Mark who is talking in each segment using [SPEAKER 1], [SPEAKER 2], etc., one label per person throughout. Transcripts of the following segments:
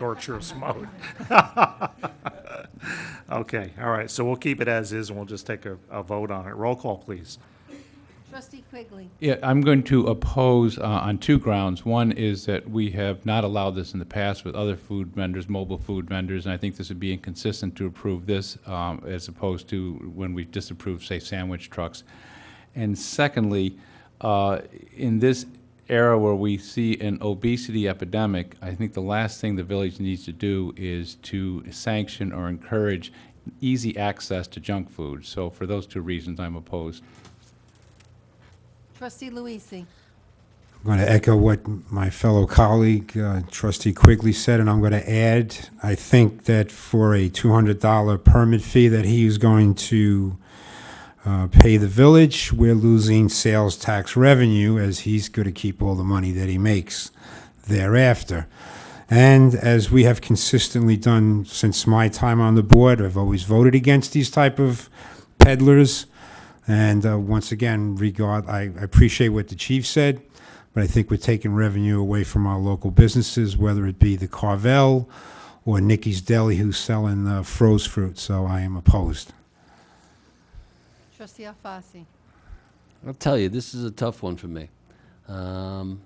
[SPEAKER 1] torturous mode. Okay, all right, so we'll keep it as is, and we'll just take a, a vote on it. Roll call, please.
[SPEAKER 2] Trustee Quigley.
[SPEAKER 3] Yeah, I'm going to oppose uh, on two grounds. One is that we have not allowed this in the past with other food vendors, mobile food vendors, and I think this would be inconsistent to approve this um, as opposed to when we disapprove, say, sandwich trucks. And secondly, uh, in this era where we see an obesity epidemic, I think the last thing the village needs to do is to sanction or encourage easy access to junk food. So for those two reasons, I'm opposed.
[SPEAKER 2] Trustee Luisee.
[SPEAKER 4] I'm going to echo what my fellow colleague, uh, trustee Quigley said, and I'm going to add, I think that for a $200 permit fee that he is going to uh, pay the village, we're losing sales tax revenue as he's going to keep all the money that he makes thereafter. And as we have consistently done since my time on the board, I've always voted against these type of peddlers. And uh, once again, regard, I I appreciate what the chief said, but I think we're taking revenue away from our local businesses, whether it be the Carvel or Nikki's Deli who's selling uh, froze fruit, so I am opposed.
[SPEAKER 2] Trustee Alfasi.
[SPEAKER 5] I'll tell you, this is a tough one for me. Um,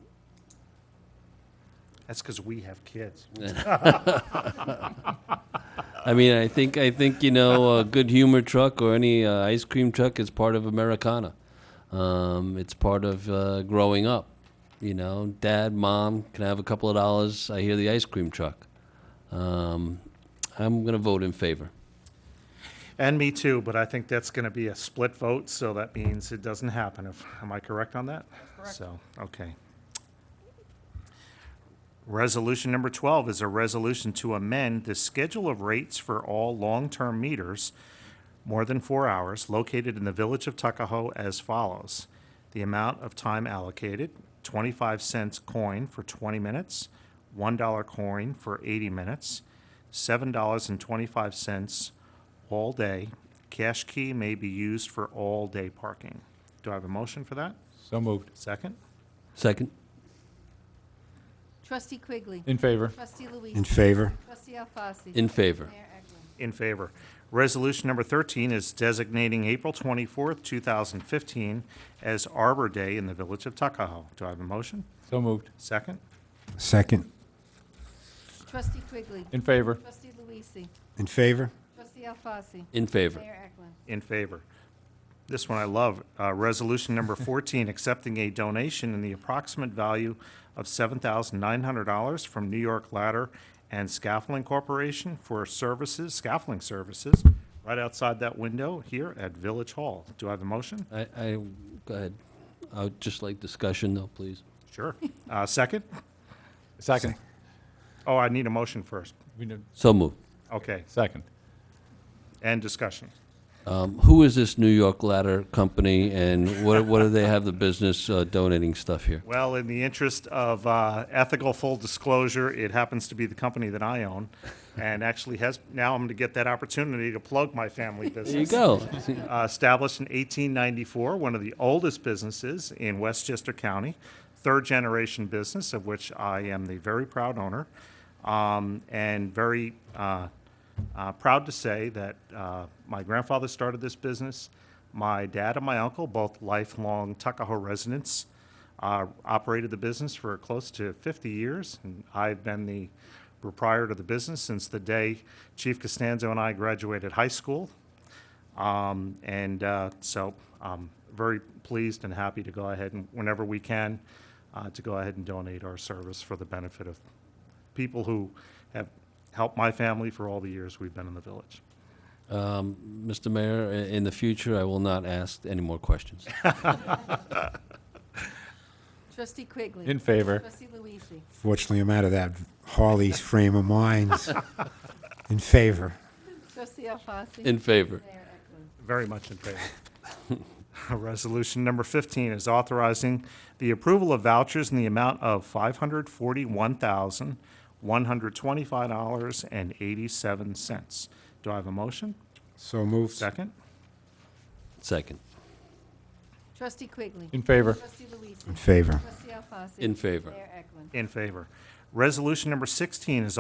[SPEAKER 1] That's because we have kids.
[SPEAKER 5] I mean, I think I think you know a good humor truck or any uh, ice cream truck is part of Americana. Um, it's part of uh, growing up. You know, dad, mom can I have a couple of dollars. I hear the ice cream truck. Um, I'm gonna vote in favor.
[SPEAKER 1] And me too, but I think that's going to be a split vote, so that means it doesn't happen. If, am I correct on that? Correct. So, okay. Resolution number 12 is a resolution to amend the schedule of rates for all long-term meters more than four hours located in the Village of Tuckahoe as follows. The amount of time allocated, 25 cents coin for 20 minutes, $1 coin for 80 minutes, $7.25 all day. Cash key may be used for all-day parking. Do I have a motion for that?
[SPEAKER 3] So moved.
[SPEAKER 1] Second?
[SPEAKER 5] Second.
[SPEAKER 2] Trustee Quigley.
[SPEAKER 3] In favor.
[SPEAKER 2] Trustee
[SPEAKER 4] In
[SPEAKER 2] Luisee.
[SPEAKER 4] favor?
[SPEAKER 2] Trustee Alfasi.
[SPEAKER 5] In favor.
[SPEAKER 2] Mayor Eklund.
[SPEAKER 1] In favor. Resolution number 13 is designating April 24th, 2015 as Arbor Day in the Village of Tuckahoe. Do I have a motion?
[SPEAKER 3] So moved.
[SPEAKER 1] Second?
[SPEAKER 4] Second?
[SPEAKER 2] Trustee Quigley.
[SPEAKER 3] In favor.
[SPEAKER 2] Trustee Luisee.
[SPEAKER 4] In favor?
[SPEAKER 2] Trustee Alfasi.
[SPEAKER 5] In favor.
[SPEAKER 2] Mayor Eklund.
[SPEAKER 1] In favor. This one I love. Uh, Resolution number 14, accepting a donation in the approximate value of $7,900 from New York Ladder and Scaffolding Corporation for services, scaffolding services, right outside that window here at Village Hall. Do I have a motion?
[SPEAKER 5] I, I go ahead. I would just like discussion though, please.
[SPEAKER 1] Sure. Uh, Second?
[SPEAKER 3] Second.
[SPEAKER 1] Oh, I need a motion first.
[SPEAKER 3] We need-
[SPEAKER 5] So moved.
[SPEAKER 1] Okay,
[SPEAKER 3] Second.
[SPEAKER 1] and discussion.
[SPEAKER 5] Um, who is this New York Ladder Company, and what, what do they have the business uh, donating stuff here?
[SPEAKER 1] Well, in the interest of uh, ethical full disclosure, it happens to be the company that I own, and actually has, now I'm going to get that opportunity to plug my family business.
[SPEAKER 5] There you go.
[SPEAKER 1] Uh, Established in 1894, one of the oldest businesses in Westchester County, third-generation business, of which I am the very proud owner, um, and very uh, uh, proud to say that uh, my grandfather started this business, my dad and my uncle, both lifelong Tuckahoe residents, uh, operated the business for close to 50 years, and I've been the proprietor of the business since the day Chief Costanzo and I graduated high school. Um, And uh, so I'm very pleased and happy to go ahead and, whenever we can, uh, to go ahead and donate our service for the benefit of people who have helped my family for all the years we've been in the village.
[SPEAKER 5] Mr. Mayor, i- in the future, I will not ask any more questions.
[SPEAKER 2] Trustee Quigley.
[SPEAKER 3] In favor.
[SPEAKER 2] Trustee Luisee.
[SPEAKER 4] Fortunately, I'm out of that Harley's frame of mind. In favor?
[SPEAKER 2] Trustee Alfasi.
[SPEAKER 5] In favor.
[SPEAKER 2] Mayor Eklund.
[SPEAKER 1] Very much in favor. Resolution number 15 is authorizing the approval of vouchers in the amount of $541,125.87. Do I have a motion?
[SPEAKER 4] So moved.
[SPEAKER 1] Second?
[SPEAKER 5] Second.
[SPEAKER 2] Trustee Quigley.
[SPEAKER 3] In favor.
[SPEAKER 2] Trustee
[SPEAKER 4] In
[SPEAKER 2] Luisee.
[SPEAKER 4] favor?
[SPEAKER 2] Trustee Alfasi.
[SPEAKER 5] In favor.
[SPEAKER 2] Mayor Eklund.
[SPEAKER 1] In favor. Resolution number 16 is